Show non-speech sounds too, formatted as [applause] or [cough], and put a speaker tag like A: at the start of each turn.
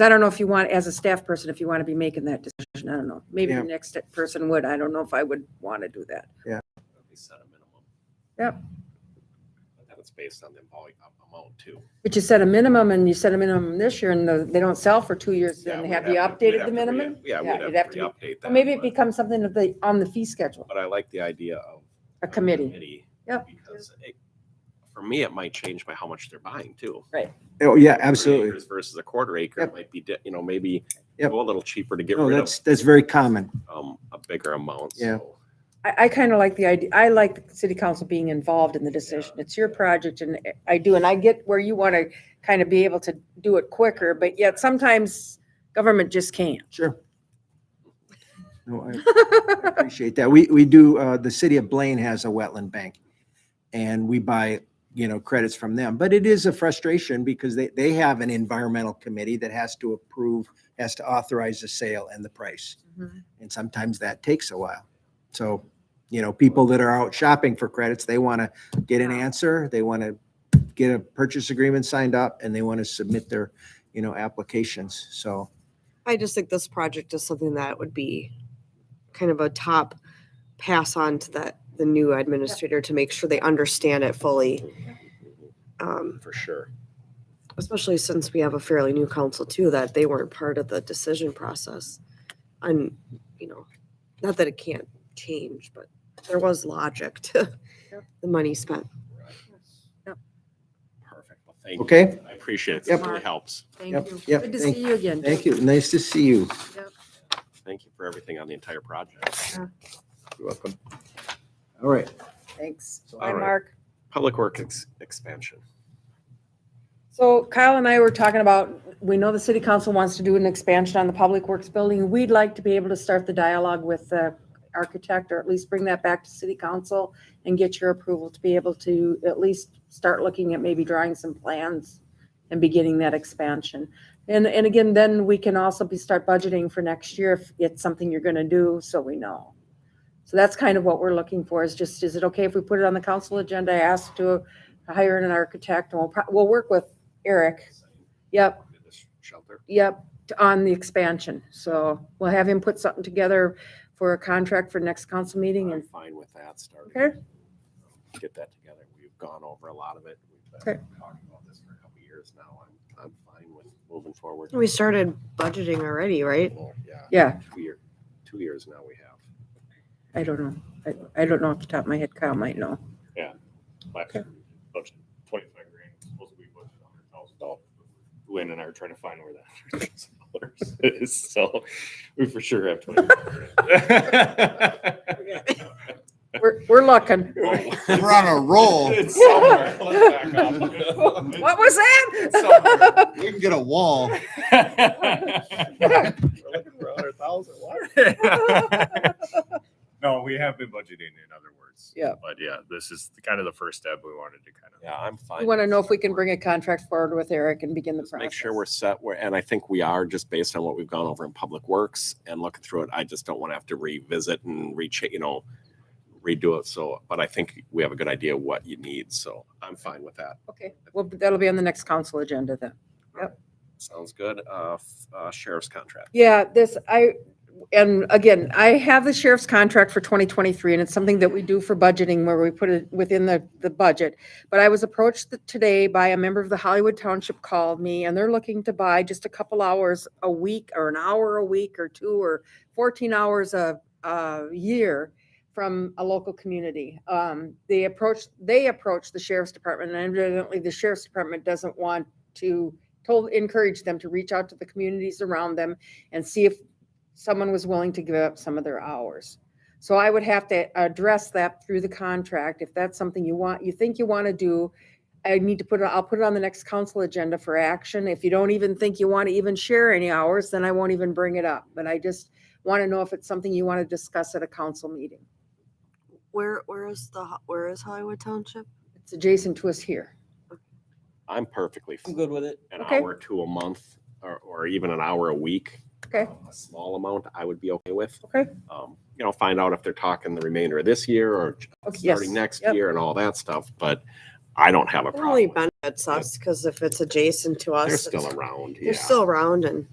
A: I don't know if you want, as a staff person, if you want to be making that decision, I don't know. Maybe
B: Yeah.
A: the next person would, I don't know if I would want to do that.
C: at least set a minimum.
A: Yep.
C: But then it's based on the amount, amount too.
A: But you set a minimum and you set a minimum this year and the- they don't sell for two years,
C: Yeah,
A: then
C: we'd
A: have you
C: to- we'd
A: updated the
C: have to re-
A: minimum?
C: Yeah,
A: Yeah,
C: we'd
A: you'd
C: have to
A: have
C: re-update
A: Or
C: that.
A: maybe it
C: but-
A: becomes something of the, on the fee schedule,
C: But I like the idea of.
A: a committee. Yep.
C: Because it, for me, it might change by how much they're buying too.
B: Oh, yeah,
C: Three
B: absolutely.
C: acres Versus a quarter acre, it
B: Yep.
C: might be, di- you know, maybe
B: Yep.
C: go a little cheaper to get
B: No,
C: rid of,
B: that's, that's very common.
C: um, a bigger amount.
B: Yeah.
C: so
A: I, I kind of like the idea, I like the city council being involved in the decision. It's your project and I do, and I get where you want to kind of be able to do it quicker, but yet sometimes government just can't.
B: Sure. No, I I appreciate that. We, we do, uh, the city of Blaine has a wetland bank and we buy, you know, credits from them. But it is a frustration because they, they have an environmental committee that has to approve, has to authorize the sale and the price.
A: Mm-hmm.
B: And sometimes that takes a while. So, you know, people that are out shopping for credits, they want to get an answer, they want to get a purchase agreement signed up, and they want to submit their, you know, applications. So,
D: I just think this project is something that would be kind of a top pass on to that, the new administrator to make sure they understand it fully. Um,
C: Mm-hmm. For sure.
D: Especially since we have a fairly new council too, that they weren't part of the decision process. And, you know, not that it can't change, but there was logic to
A: Yep.
D: the money spent.
A: Yep.
C: Perfect. Well, thank you.
B: Okay.
C: I appreciate it. This
B: Yep.
C: really helps.
B: Yep,
A: Thank you.
B: yep,
A: Good to
B: thank-
A: see you again.
B: thank you. Nice to see you.
C: Thank you for everything on the entire project.
A: Yeah.
C: You're welcome.
B: All right.
A: Thanks.
B: So,
A: Bye,
C: all right.
A: Mark.
C: Public Works ex- expansion.
A: So Kyle and I were talking about, we know the city council wants to do an expansion on the Public Works building. We'd like to be able to start the dialogue with the architect, or at least bring that back to city council and get your approval to be able to at least start looking at maybe drawing some plans and beginning that expansion. And, and again, then we can also be, start budgeting for next year if it's something you're gonna do, so we know. So that's kind of what we're looking for, is just, is it okay if we put it on the council agenda, ask to hire an architect, and we'll, pro- we'll work with Eric. Yep,
C: This Shelter.
A: yep, on the expansion. So we'll have him put something together for a contract for next council meeting
C: I'm
A: and,
C: fine with that starting.
A: Okay.
C: Get that together. We've gone over a lot of it. We've
A: Okay.
C: been talking about this for a couple of years now. I'm, I'm fine with moving forward.
D: We started budgeting already, right?
C: Well, Yeah,
A: yeah,
C: two year, two years now we have.
A: I don't know. I, I don't know off the top of my head. Kyle might know.
E: last year, we budgeted twenty-five grand, supposed to be budgeted hundred thousand dollars. Luann and I are trying to find where that hundred thousand dollars [laughs] is, so we for sure have twenty.
A: We're, we're looking.
F: We're
A: [laughs]
E: [laughs]
F: on a roll.
E: It's somewhere.
C: [laughs]
E: Let's back up.
A: What was [laughs] that?
E: Somewhere.
F: We can get a wall.
C: We're looking for a hundred thousand.
E: No, we have been budgeting, in other words.
A: Yeah.
E: But yeah, this is the- kind of the first step we wanted to kind of.
C: Yeah, I'm fine.
A: We want to
C: with
A: know if we
C: starting
A: can
C: work.
A: bring a contract forward with Eric and begin the
C: Just
A: process.
C: Make sure we're set where, and I think we are just based on what we've gone over in Public Works and looking through it. I just don't want to have to revisit and reach, you know, redo it. So, but I think we have a good idea of what you need. So I'm fine with that.
A: Okay, well, that'll be on the next council agenda then.
C: Sounds good. Uh, f- uh, sheriff's contract.
A: Yeah, this, I, and again, I have the sheriff's contract for 2023, and it's something that we do for budgeting where we put it within the, the budget. But I was approached th- today by a member of the Hollywood Township called me, and they're looking to buy just a couple hours a week, or an hour a week, or two, or 14 hours a, a year from a local community. Um, They approached, they approached the sheriff's department, and evidently the sheriff's department doesn't want to, told, encourage them to reach out to the communities around them and see if someone was willing to give up some of their hours. So I would have to address that through the contract. If that's something you want, you think you want to do, I need to put it, I'll put it on the next council agenda for action. If you don't even think you want to even share any hours, then I won't even bring it up. But I just want to know if it's something you want to discuss at a council meeting.
D: Where, where is the, ho- where is Hollywood Township?
A: It's adjacent to us here.
C: I'm perfectly. fine.
G: with it.
C: An
A: Okay.
C: hour to a month or, or even an hour a week. Um,
A: Okay.
C: A small amount I would be okay with.
A: Okay.
C: Um, you know, find out if they're talking the remainder of this year or
A: Okay, yes.
C: starting next
A: Yep.
C: year and all that stuff, but I don't have a
D: It
C: problem. with
D: only
C: it.
D: benefits us because if it's adjacent to us.
C: They're
D: it's-
C: still around, yeah.
D: They're still around and.